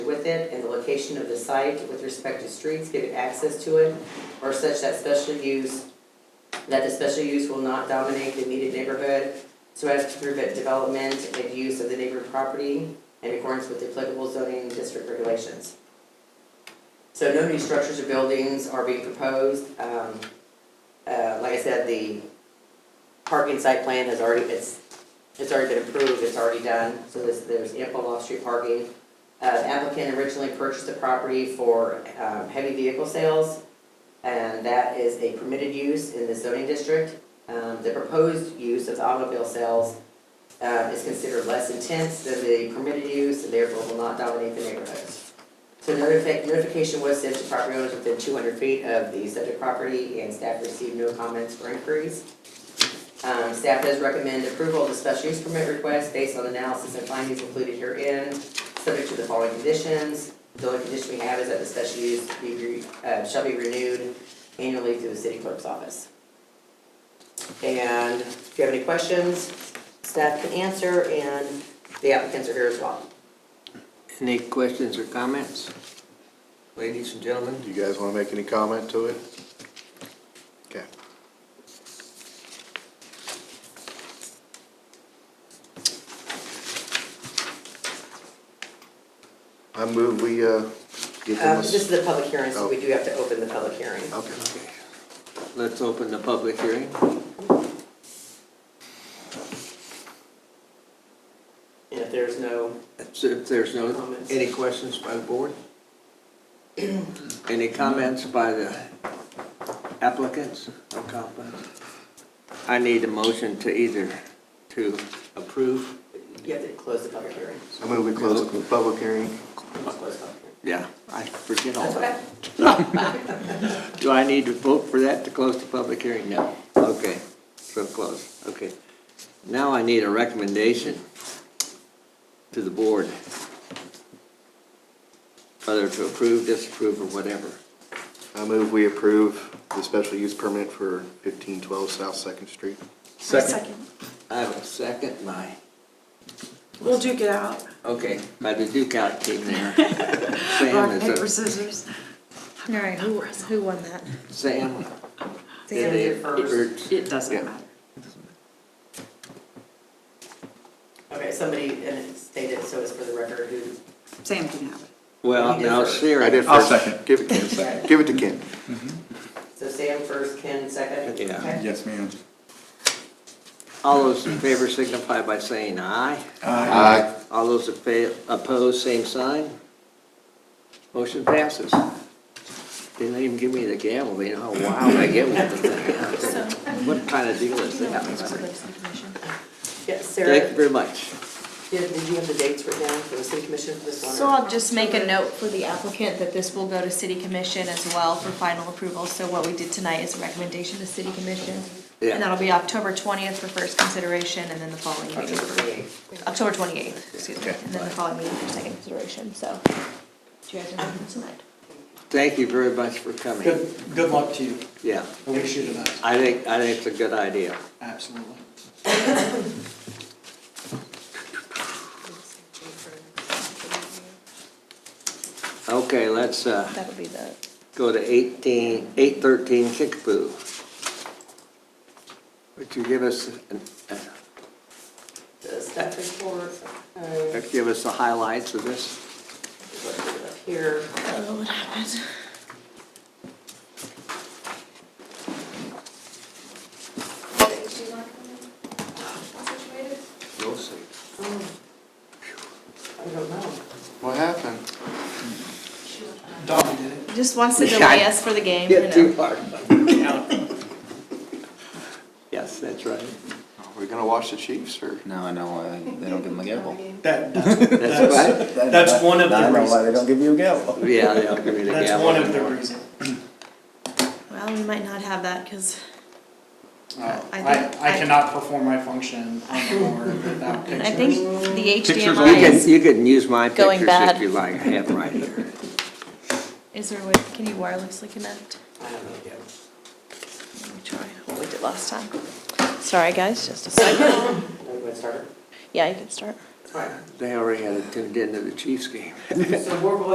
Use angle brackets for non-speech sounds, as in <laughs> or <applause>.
with it and the location of the site with respect to streets, give it access to it, or such that special use, that the special use will not dominate the immediate neighborhood so as to prevent development and use of the neighboring property in accordance with the applicable zoning and district regulations. So no new structures or buildings are being proposed. Um, uh, like I said, the parking site plan has already, it's, it's already been approved, it's already done, so this, there's ample off-street parking. Uh, applicant originally purchased the property for, um, heavy vehicle sales, and that is a permitted use in the zoning district. Um, the proposed use of the automobile sales, uh, is considered less intense than the permitted use, and therefore will not dominate the neighborhoods. So notifi- notification was sent to property owners within two hundred feet of the subject property, and staff received no comments or inquiries. Um, staff does recommend approval of the special use permit request based on analysis and findings included herein, subject to the following conditions. The only condition we have is that the special use be, re- uh, shall be renewed annually through the city clerk's office. And if you have any questions, staff can answer, and the applicants are here as well. Any questions or comments? Ladies and gentlemen? Do you guys want to make any comment to it? Okay. I move we, uh, give them Um, a. this s- is a public hearing, so we do have to open the public hearing. Okay. Let's open the public hearing. And if there's no, If if there's no, Comments. any questions by the board? Any comments by the applicants or comments? I need a motion to either to approve, you have to close the public hearing. I move we close the public hearing. Close the public hearing. yeah, I forget all That's that. okay. Do I need to vote for that to close the public hearing? No. Okay, so close, okay. Now I need a recommendation to the board, whether to approve, disapprove, or whatever. I move we approve the special use permit for fifteen twelve South Second Street. Second. I have a second, my, We'll duke it out. okay, by the Duke out team <laughs> there. Sam Rock, paper, is, scissors. All right, who, who won that? a- Sam. Sam did did first. Bert. It doesn't matter. Okay, somebody, and it stated, so it's for the record, who, Sam can have it. Well, now Siri. I did 1st I'll second. Give it to Ken. Give it to Ken. so Sam first, Ken second? Yeah. Okay. Yes, ma'am. All those in favor signify by saying aye. Aye. All those that fa- opposed, same sign. Motion passes. Didn't even give me the gavel, you know, wow, I get with the thing. <laughs> huh? What kind of deal is that? Yeah, Sarah, Thank you very much. did, did you have the dates written down for the city commission for this one? or- So I'll just make a note for the applicant that this will go to city commission as well for final approval. So what we did tonight is a recommendation to city commission. Yeah. And that'll be October twentieth for first consideration and then the following meeting October for, 28th. October twenty-eighth, excuse me, Okay. and then the following meeting for second consideration, so. Do you guys remember tonight? Thank you very much for coming. Good, good luck to you. Yeah, I wish you the best, I think, I think it's a good idea. absolutely. Okay, let's uh, That'll be the, go to 18, 813 Kickapoo. Would you give us, an- uh, The staff report, uh, let's give us the highlights of this? put it up here. oh, what happened? We'll see. Oh. I don't know. What happened? Don did it. Just wants to Yeah, delay I- us for the game, you Get too know. far. Yeah. <laughs> Yes, that's right. Are we gonna watch the Chiefs or? No, I know, uh, they don't give them a gavel. That, that's, That's right. that's one of I the know why they reasons. don't give you a gavel. Yeah, they'll give me the gavel. That's one of the reasons. Well, we might not have that, cause Uh, I I, think- I cannot perform my function on the <laughs> board without pictures. I think the You HDMI can, is, you can use my Going pictures if bad. you like, I have them right here. <laughs> is there a way, can you wirelessly connect? I have no idea. Let me try what we did last time. Sorry, guys, just a second. Are we gonna start? Yeah, you can start. All right. They already had it tuned into the Chiefs game. So we're